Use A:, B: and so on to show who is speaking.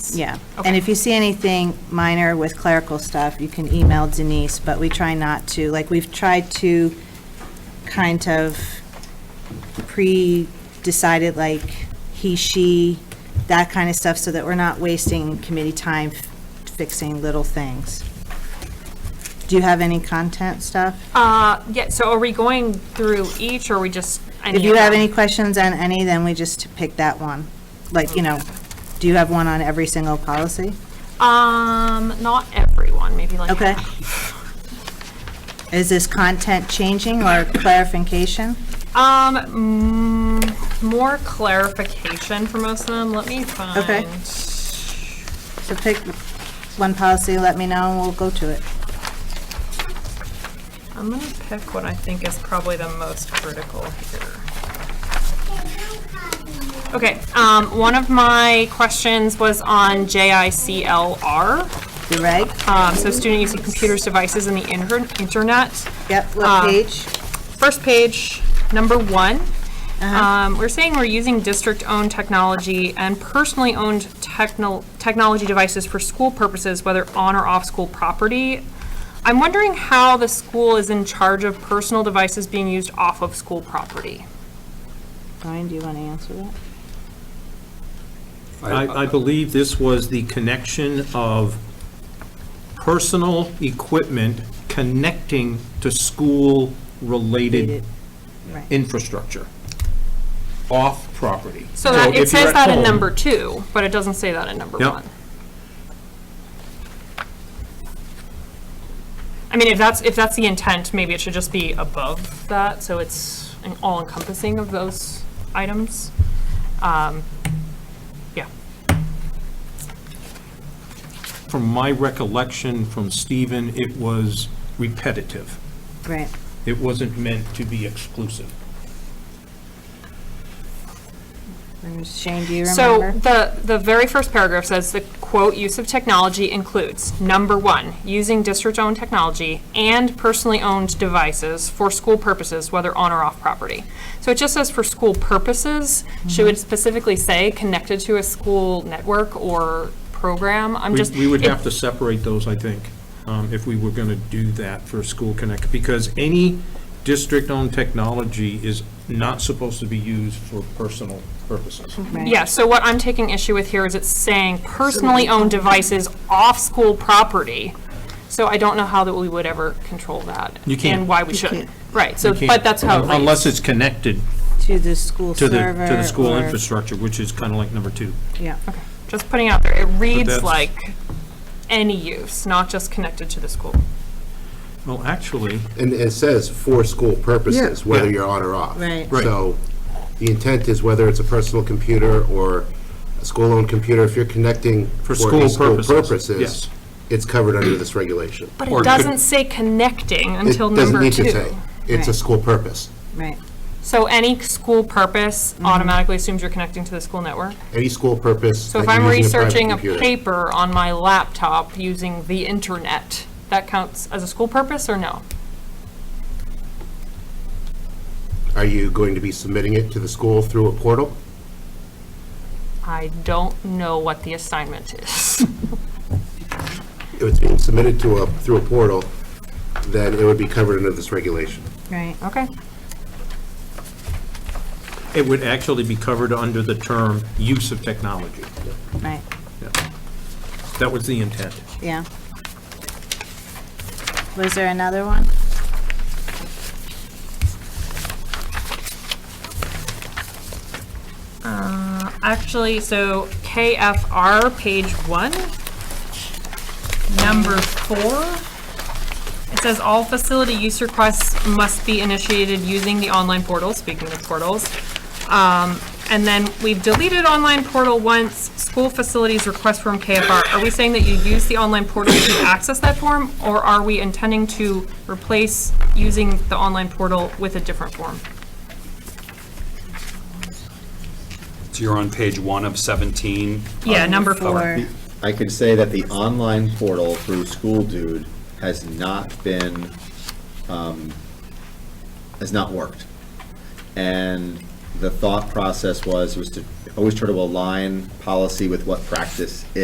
A: Yeah, and
B: Okay.
A: if you see anything minor with clerical stuff, you can email Denise, but we try not to, like, we've tried to kind of pre-decided, like, he, she, that kind of stuff, so that we're not wasting committee time fixing little things. Do you have any content stuff?
B: Uh, yeah, so are we going through each, or are we just? any
A: If you
B: of
A: have
B: them?
A: any questions on any, then we just pick that one. Like, you know, do you have one on every single policy?
B: Um, not everyone, maybe like.
A: Okay. Is this content changing or clarification?
B: Um, mm, more clarification for most of them, let me find.
A: Okay. So pick one policy, let me know, and we'll go to it.
B: I'm gonna pick what I think is probably the most critical here. Okay, um, one of my questions was on JICLR,
A: The reg?
B: um, so student use of computers, devices, and the inter- internet.
A: Yep, what
B: Um,
A: page?
B: first page, number one, um, we're saying we're using district-owned technology and personally-owned techno- technology devices for school purposes, whether on or off school property. I'm wondering how the school is in charge of personal devices being used off of school property.
A: Brian, do you want to answer that?
C: I, I believe this was the connection of personal equipment connecting to school-related
A: Right.
C: infrastructure off property.
B: So that,
C: if
B: it
C: you're
B: says
C: at
B: that in
C: home-
B: number two, but it doesn't say that in number
C: Yep.
B: one. I mean, if that's, if that's the intent, maybe it should just be above that, so it's an all encompassing of those items. Um, Yeah,
C: From my recollection from Stephen, it was repetitive.
A: Right.
C: It wasn't meant to be exclusive.
A: And Shane, do you
B: so
A: remember?
B: the, the very first paragraph says the quote, "Use of technology includes, number one, using district-owned technology and personally-owned devices for school purposes, whether on or off property." So it just says for school purposes, should
A: Mm-hmm.
B: it specifically say connected to a school network or program? I'm
C: We
B: just.
C: we would
B: it-
C: have to separate those, I think, um, if we were going to do that for School Connect, because any district-owned technology is not supposed to be used for personal purposes.
A: Right.
B: Yeah, so what I'm taking issue with here is it's saying personally owned devices off school property. So I don't know how that we would ever control that.
C: You can't.
B: And why we
A: can't.
B: should. Right, so,
C: You can't-
B: but that's how it reads.
C: Unless it's connected
A: To the school
C: to the,
A: server?
C: to the school
A: or-
C: infrastructure, which is kind of like number two.
A: Yeah,
B: Just putting out there, it reads
C: that's-
B: like any use, not just connected to the school.
C: Well, actually,
D: And it says for school purposes, whether
C: Yeah.
D: you're on or off.
A: Right.
C: Right.
D: So the intent is whether it's a personal computer or a school-owned computer, if you're connecting
C: For
D: for
C: school
D: any school
C: purposes, yes.
D: purposes, it's covered under this regulation.
B: But
C: Or
B: it
C: could-
B: doesn't say connecting
D: It
B: until
D: doesn't
B: number
D: need to
B: two.
D: say. It's a
A: Right.
D: school purpose.
A: right.
B: So any school purpose
D: Mm-hmm.
B: automatically assumes you're connecting to the school network?
D: Any school purpose
B: So if
D: that
B: I'm
D: you're using
B: researching a
D: private computer.
B: paper on my laptop using the internet, that counts as a school purpose or no?
D: Are you going to be submitting it to the school through a portal?
B: I don't know what the assignment is.
D: If it's being submitted to a, through a portal, then it would be covered under this regulation.
A: Right.
B: Okay,
C: it would actually be covered under the term use of technology.
A: Right,
C: Yeah. That was the intent.
A: yeah. Was there another one?
B: Uh, actually, so KFR, page one, number four, it says all facility use requests must be initiated using the online portal, speaking of portals. Um, And then we've deleted online portal once, school facilities request form KFR. Are we saying that you use the online portal to access that form? Or are we intending to replace using the online portal with a different form?
E: So you're on page one of 17.
B: Yeah,
A: Oh,
B: number four.
A: Or,
F: I can say that the online portal through School Dude has not been, um, has not worked. And the thought process was, was to always try to align policy with what practice